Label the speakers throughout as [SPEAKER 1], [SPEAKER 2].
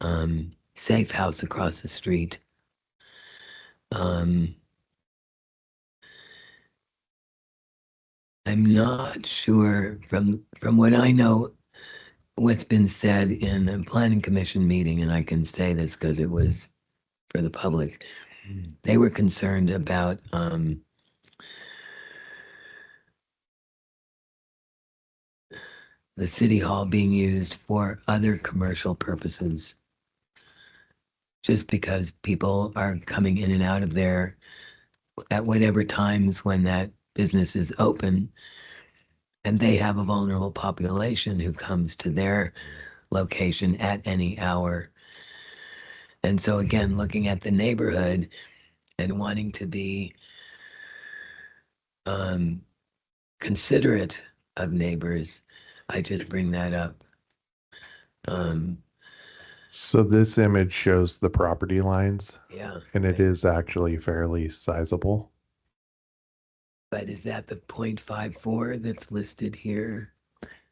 [SPEAKER 1] um, safe house across the street. Um, I'm not sure from from what I know, what's been said in a planning commission meeting, and I can say this because it was for the public. They were concerned about um, the city hall being used for other commercial purposes. Just because people are coming in and out of there at whatever times when that business is open. And they have a vulnerable population who comes to their location at any hour. And so again, looking at the neighborhood and wanting to be um, considerate of neighbors, I just bring that up. Um,
[SPEAKER 2] So this image shows the property lines
[SPEAKER 1] yeah,
[SPEAKER 2] and
[SPEAKER 1] Right.
[SPEAKER 2] it is actually fairly sizable.
[SPEAKER 1] but is that the point five four that's listed here?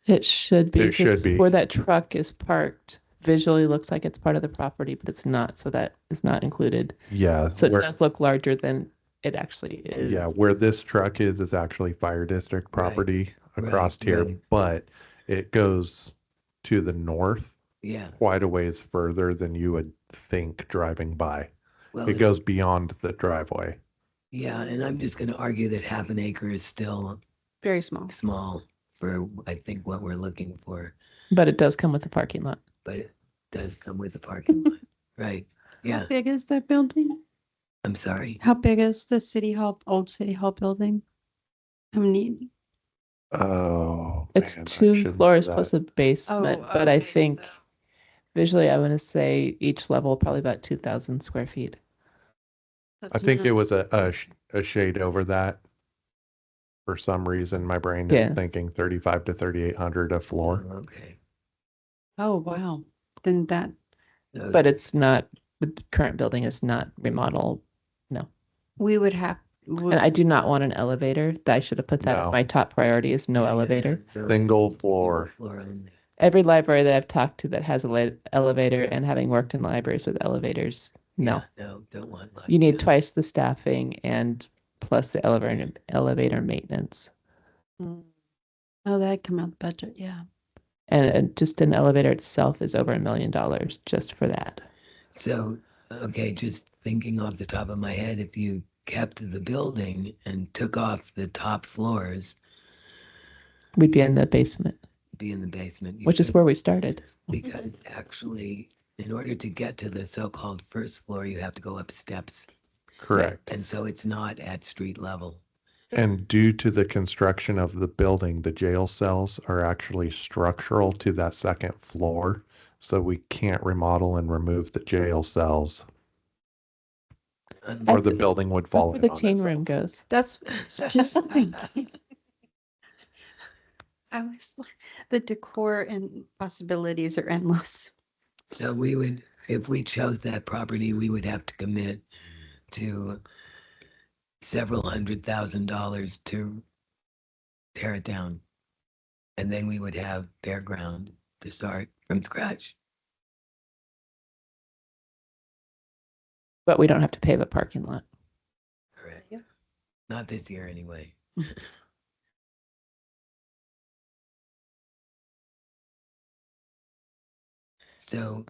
[SPEAKER 3] It should be.
[SPEAKER 2] It
[SPEAKER 3] 'cause
[SPEAKER 2] should be.
[SPEAKER 3] Where that truck is parked visually looks like it's part of the property, but it's not. So that is not included.
[SPEAKER 2] Yeah,
[SPEAKER 3] So it
[SPEAKER 2] where,
[SPEAKER 3] does look larger than it actually is.
[SPEAKER 2] yeah, where this truck is is actually fire district
[SPEAKER 1] Right,
[SPEAKER 2] property
[SPEAKER 1] right,
[SPEAKER 2] across here,
[SPEAKER 1] right.
[SPEAKER 2] but it goes to the north
[SPEAKER 1] Yeah.
[SPEAKER 2] quite a ways further than you would think driving by.
[SPEAKER 1] Well,
[SPEAKER 3] Oh.
[SPEAKER 2] It
[SPEAKER 1] it's-
[SPEAKER 2] goes beyond the driveway.
[SPEAKER 1] Yeah, and I'm just going to argue that half an acre is still
[SPEAKER 4] Very small.
[SPEAKER 1] small for, I think, what we're looking for,
[SPEAKER 3] But it does come with a parking lot.
[SPEAKER 1] but it does come with a parking lot, right? Yeah,
[SPEAKER 4] How big is that building?
[SPEAKER 1] I'm sorry.
[SPEAKER 4] How big is the city hall, old city hall building? How many?
[SPEAKER 2] Oh.
[SPEAKER 3] It's
[SPEAKER 2] man, I
[SPEAKER 3] two
[SPEAKER 2] shouldn't
[SPEAKER 3] floors
[SPEAKER 2] do
[SPEAKER 3] plus
[SPEAKER 2] that.
[SPEAKER 3] a basement,
[SPEAKER 4] Oh,
[SPEAKER 3] but I
[SPEAKER 4] okay,
[SPEAKER 3] think
[SPEAKER 4] so-
[SPEAKER 3] visually, I want to say each level probably about 2,000 square feet.
[SPEAKER 2] I
[SPEAKER 4] that's
[SPEAKER 2] think
[SPEAKER 4] not-
[SPEAKER 2] it was a, a, sh- a shade over that. For some reason, my brain
[SPEAKER 3] Yeah.
[SPEAKER 2] is thinking thirty-five to thirty-eight hundred a floor.
[SPEAKER 1] Okay.
[SPEAKER 4] Oh, wow. Then that,
[SPEAKER 1] So
[SPEAKER 3] But it's not, the current building is not remodel.
[SPEAKER 4] we would have. would-
[SPEAKER 3] And I do not want an elevator. That I should have put that as
[SPEAKER 2] No.
[SPEAKER 3] my top priority is no elevator.
[SPEAKER 2] Single floor.
[SPEAKER 1] Floor only.
[SPEAKER 3] every library that I've talked to that has a le- elevator and having worked in libraries with elevators, no.
[SPEAKER 1] Yeah, No, don't want. like
[SPEAKER 3] You need
[SPEAKER 1] that.
[SPEAKER 3] twice the staffing and plus the elevator elevator maintenance.
[SPEAKER 4] Mm. Oh, that'd come out the budget, yeah.
[SPEAKER 3] And, and just an elevator itself is over a million dollars just for that.
[SPEAKER 1] So, okay, just thinking off the top of my head, if you kept the building and took off the top floors,
[SPEAKER 3] We'd be in the basement,
[SPEAKER 1] be in the basement. you
[SPEAKER 3] which is
[SPEAKER 1] could-
[SPEAKER 3] where we started.
[SPEAKER 1] Because actually, in order to get to the so-called first floor, you have to go up steps.
[SPEAKER 2] Correct.
[SPEAKER 1] And so it's not at street level.
[SPEAKER 2] And due to the construction of the building, the jail cells are actually structural to that second floor. So we can't remodel and remove the jail cells or
[SPEAKER 1] unlike-
[SPEAKER 2] the building would
[SPEAKER 3] That's
[SPEAKER 2] fall
[SPEAKER 3] where
[SPEAKER 2] in
[SPEAKER 3] the
[SPEAKER 2] on
[SPEAKER 3] teen
[SPEAKER 2] itself.
[SPEAKER 3] room goes.
[SPEAKER 4] That's it's just thinking. I was like, the decor and possibilities are endless.
[SPEAKER 1] So we would, if we chose that property, we would have to commit to several hundred thousand dollars to tear it down. And then we would have bare ground to start from scratch.
[SPEAKER 3] But we don't have to pave a parking lot.
[SPEAKER 1] Correct.
[SPEAKER 4] Yeah.
[SPEAKER 1] Not this year anyway. So,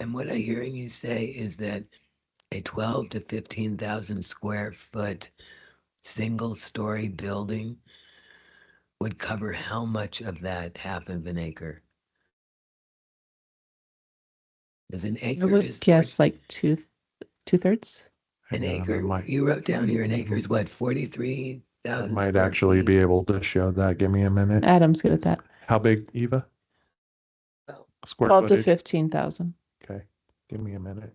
[SPEAKER 1] and what I'm hearing you say is that a twelve to fifteen thousand square foot single story building would cover how much of that half of an acre? Is an
[SPEAKER 3] I
[SPEAKER 1] acre is.
[SPEAKER 3] would guess like two two thirds.
[SPEAKER 1] An
[SPEAKER 2] Hang on, I
[SPEAKER 1] acre,
[SPEAKER 2] might-
[SPEAKER 1] you wrote down here an acre is what, forty-three
[SPEAKER 2] I
[SPEAKER 1] thousand?
[SPEAKER 2] Might actually be able to show that. Give me a minute.
[SPEAKER 3] Adam's good at that.
[SPEAKER 2] How big, Eva?
[SPEAKER 1] Well,
[SPEAKER 2] Square
[SPEAKER 3] Twelve to
[SPEAKER 2] footage?
[SPEAKER 3] fifteen thousand.
[SPEAKER 2] Okay, give me a minute.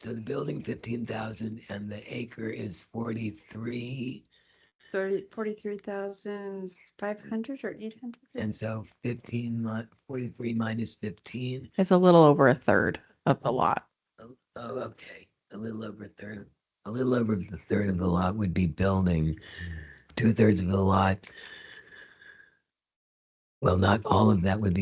[SPEAKER 1] So the building fifteen thousand and the acre is forty-three,
[SPEAKER 4] Thirty, forty-three thousand five hundred or eight hundred?
[SPEAKER 1] and so fifteen mi- forty-three minus fifteen.
[SPEAKER 5] It's a little over a third of the lot.
[SPEAKER 1] Oh, oh, okay, a little over a third, of- a little over the third of the lot would be building. Two-thirds of the lot Well, not all of that would be